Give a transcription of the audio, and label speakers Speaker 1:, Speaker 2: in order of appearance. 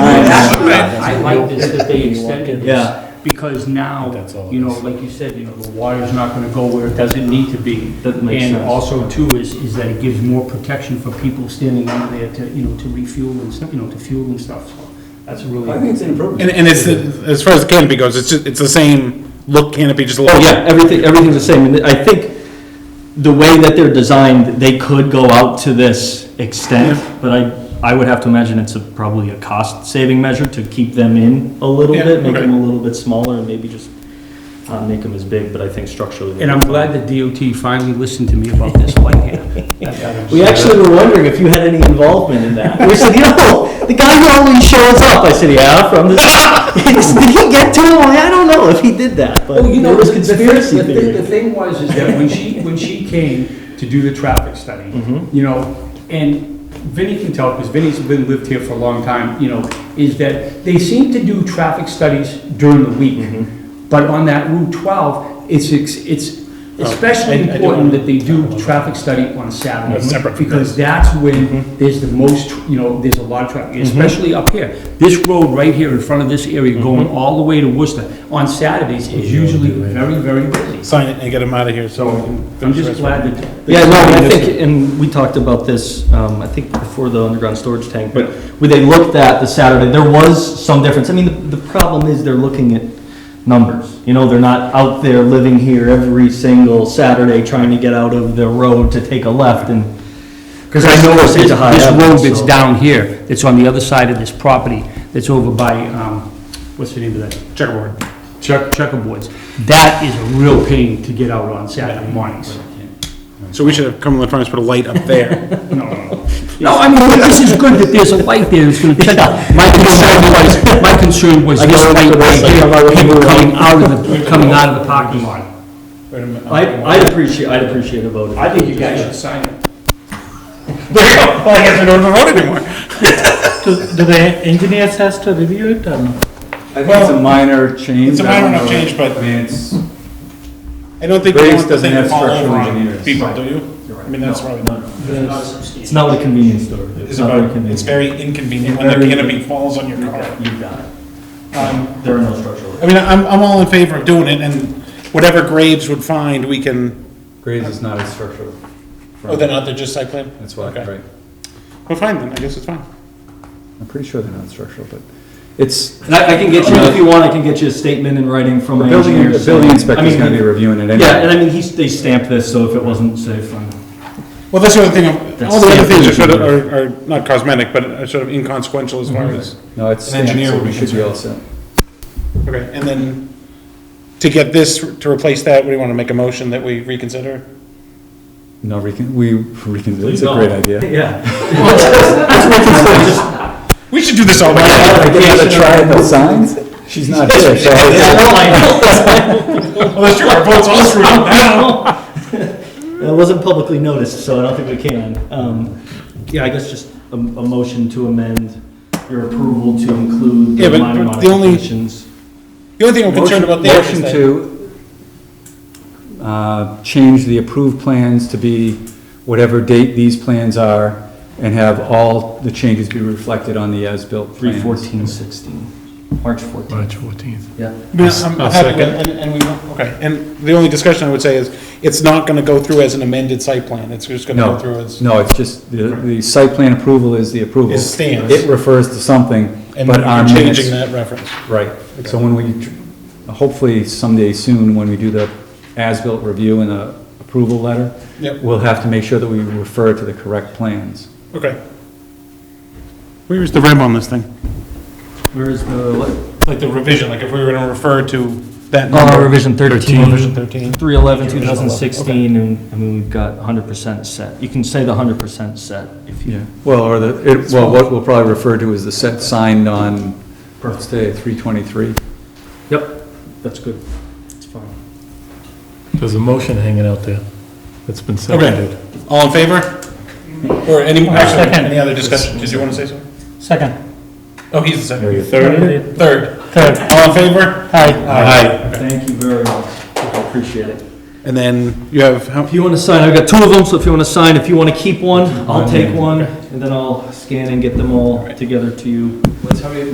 Speaker 1: I like this that they extended
Speaker 2: Yeah.
Speaker 1: this, because now,
Speaker 3: That's all it
Speaker 1: you know,
Speaker 3: is.
Speaker 1: like you said, you know, the water's not gonna go where it doesn't need to be.
Speaker 2: That makes
Speaker 1: And
Speaker 2: sense.
Speaker 1: also too is, is that it gives more protection for people standing out there to, you know, to refuel and, stuff, you know, to fuel and stuff, so that's
Speaker 4: I
Speaker 1: really,
Speaker 4: think it's inappropriate.
Speaker 5: And, and it's, as far as the canopy goes, it's, just- it's the same look canopy, just a
Speaker 2: Oh,
Speaker 5: little.
Speaker 2: yeah, everything, everything's the same, and I think the way that they're designed, they could go out to this extent, but I, I would have to imagine it's a- probably a cost-saving measure to keep them in a little
Speaker 5: Yeah,
Speaker 2: bit, make
Speaker 5: okay.
Speaker 2: them a little bit smaller, and maybe just not make them as big, but I think structurally.
Speaker 1: and I'm glad the DOT finally listened to me about this light here.
Speaker 2: We actually were wondering if you had any involvement in that. We said, you know, the guy who always shows up, I said, yeah, from this, He said, did he get to him? I'm like, I don't know if he did that, but
Speaker 4: Oh, you know,
Speaker 2: there was
Speaker 4: the- the thing-
Speaker 2: conspiracy
Speaker 4: the thing-
Speaker 2: theory.
Speaker 4: The thing was, is
Speaker 1: that
Speaker 4: that
Speaker 1: when she, when she came to do the traffic study,
Speaker 2: Mm-hmm.
Speaker 1: you know, and Vinnie can tell, because Vinnie's been, lived here for a long time, you know, is that they seem to do traffic studies during the week.
Speaker 2: Mm-hmm.
Speaker 1: But on that Route 12, it's, ex- it's
Speaker 2: Oh,
Speaker 1: especially
Speaker 3: I- I do
Speaker 1: important
Speaker 3: wanna-
Speaker 1: that they do traffic study on Saturday.
Speaker 3: That's separate from
Speaker 1: Because that's
Speaker 2: Mm-hmm.
Speaker 1: when there's the most, tr- you know, there's a lot of traffic, especially up here. This road right here in front of this area
Speaker 2: Mm-hmm.
Speaker 1: going all the way to Worcester on Saturdays is usually very, very busy.
Speaker 5: Sign it and get them out of here, so. we can
Speaker 1: I'm
Speaker 5: finish the
Speaker 1: just
Speaker 5: rest of
Speaker 1: glad that.
Speaker 2: Mm-hmm. Yeah, no, I think, and we talked about this, um, I think before the underground storage tank, but when they looked at the Saturday, there was some difference. I mean, the, the problem is they're looking at numbers. You know, they're not out there living here every single Saturday trying to get out of the road to take a left and.
Speaker 1: Because I know this,
Speaker 2: It's
Speaker 1: this
Speaker 2: a high up,
Speaker 1: road that's
Speaker 2: so-
Speaker 1: down here, that's on the other side of this property, that's over by, um, what's the name of that? Checkerboard. Check, checkerboards. That is a real pain to get out on Saturday mornings.
Speaker 5: it. So we should have Cumberland Farms put a light up there.
Speaker 1: No, no, no. No, I mean, this is good that there's a light there, it's gonna check out. My concern was, my concern was
Speaker 2: I
Speaker 1: this
Speaker 2: go
Speaker 1: light
Speaker 2: into
Speaker 1: right
Speaker 2: this, I come out
Speaker 1: here,
Speaker 2: of the
Speaker 1: people
Speaker 2: room.
Speaker 1: coming out of the, coming out of the parking lot.
Speaker 2: I, I'd appreciate, I'd appreciate a vote.
Speaker 3: I think you guys should sign it.
Speaker 5: Well, I guess I don't have to vote anymore.
Speaker 3: Do do the engineers has to review it um, or no?
Speaker 6: I think it's a minor change.
Speaker 5: It's a
Speaker 6: I
Speaker 5: minor
Speaker 6: don't
Speaker 5: enough
Speaker 6: know.
Speaker 5: change, but-
Speaker 6: I mean, it's,
Speaker 5: I don't think you
Speaker 6: Graves
Speaker 5: want the
Speaker 6: doesn't
Speaker 5: thing to
Speaker 6: have
Speaker 5: fall over
Speaker 6: structural
Speaker 5: on
Speaker 6: engineers.
Speaker 5: people, do you? I mean, that's probably not.
Speaker 2: It's not a convenience store.
Speaker 5: It's about, it's very inconvenient when the
Speaker 2: Very-
Speaker 5: canopy falls on your car.
Speaker 2: You've got it.
Speaker 5: Um,
Speaker 2: There are no structural.
Speaker 5: I mean, I'm, I'm all in favor of doing it, and whatever Graves would find, we can,
Speaker 6: Graves is not a structural.
Speaker 5: oh, they're not, they're just site plan?
Speaker 6: That's why,
Speaker 5: Okay.
Speaker 6: right.
Speaker 5: Well, fine then, I guess it's fine.
Speaker 6: I'm pretty sure they're not structural, but it's,
Speaker 2: And I, I can get you, if you want, I can get you a statement in writing from
Speaker 6: the
Speaker 2: my
Speaker 6: building,
Speaker 2: engineer.
Speaker 6: the building
Speaker 2: saying- I
Speaker 6: inspector's
Speaker 2: mean,
Speaker 6: gonna be reviewing it anyway.
Speaker 2: Yeah, and I mean, he's, they stamped this, so if it wasn't safe, from
Speaker 5: Well, that's the other thing, all the other
Speaker 2: That's-
Speaker 5: things are sort of, are, are not cosmetic, but are sort of inconsequential as far as,
Speaker 6: No, it's,
Speaker 5: An engineer
Speaker 6: so
Speaker 5: would
Speaker 6: we
Speaker 5: be
Speaker 6: should be all set.
Speaker 5: okay, and then to get this, to replace that, we wanna make a motion that we reconsider?
Speaker 6: No, recon, we, recon, it's a great idea.
Speaker 2: Yeah.
Speaker 5: We should do this all
Speaker 6: I
Speaker 5: together.
Speaker 6: get to try the signs, she's not here, so.
Speaker 5: Unless you are votes all screwed up now.
Speaker 2: It wasn't publicly noticed, so I don't think we can. Um, yeah, I guess just a, a motion to amend your approval to include
Speaker 5: Yeah,
Speaker 2: the
Speaker 5: but-
Speaker 2: minor
Speaker 5: but the only-
Speaker 2: modifications.
Speaker 5: The only thing I'm concerned about there is
Speaker 6: Motion
Speaker 5: that.
Speaker 6: to, uh, change the approved plans to be whatever date these plans are, and have all the changes be reflected on the as-built
Speaker 2: Three
Speaker 6: plans.
Speaker 2: fourteen sixteen, March fourteenth.
Speaker 3: fourteenth.
Speaker 2: Yeah.
Speaker 5: Yeah, I'm I'm happy with, and, and we, won't- okay, and the only discussion I would say is, it's not gonna go through as an amended site plan, it's just gonna go through
Speaker 6: No,
Speaker 5: as.
Speaker 6: no, it's just, the, the site plan approval is the approval.
Speaker 5: It stands.
Speaker 6: It refers to something,
Speaker 5: And
Speaker 6: but our
Speaker 5: we're
Speaker 6: minutes.
Speaker 5: changing that reference.
Speaker 6: Right, so when we, tr- hopefully someday soon, when we do the as-built review and the approval letter,
Speaker 5: Yep.
Speaker 6: we'll have to make sure that we refer to the correct plans.
Speaker 5: Okay. Where is the rem on this thing?
Speaker 2: Where is the, what?
Speaker 5: Like the revision, like if we were gonna refer to that
Speaker 2: Uh,
Speaker 5: number.
Speaker 2: revision thirteen.
Speaker 5: Revision thirteen.
Speaker 2: 311,
Speaker 5: Original eleven,
Speaker 2: 2016, and, I mean, we've got 100% set. You can say the 100% set if you,
Speaker 6: Yeah, well, or the, it, well, what we'll probably refer to as the set signed on, let's say, three twenty-three.
Speaker 2: yep, that's good. It's fine.
Speaker 3: There's a motion hanging out there that's been
Speaker 5: Okay,
Speaker 3: seconded.
Speaker 5: all in favor? Or any, actually, any other discussion, did you wanna say something?
Speaker 3: Second.
Speaker 5: Oh, he's the second.
Speaker 3: Third?
Speaker 5: Third,
Speaker 3: Third.
Speaker 5: all in favor? Aye.
Speaker 2: Thank you very much. I Appreciate it.
Speaker 5: And then you have, how,
Speaker 2: If you want to sign, I've got two of them, so if you want to sign, if you want to keep one, I'll take one, and then I'll scan and get them all together to you.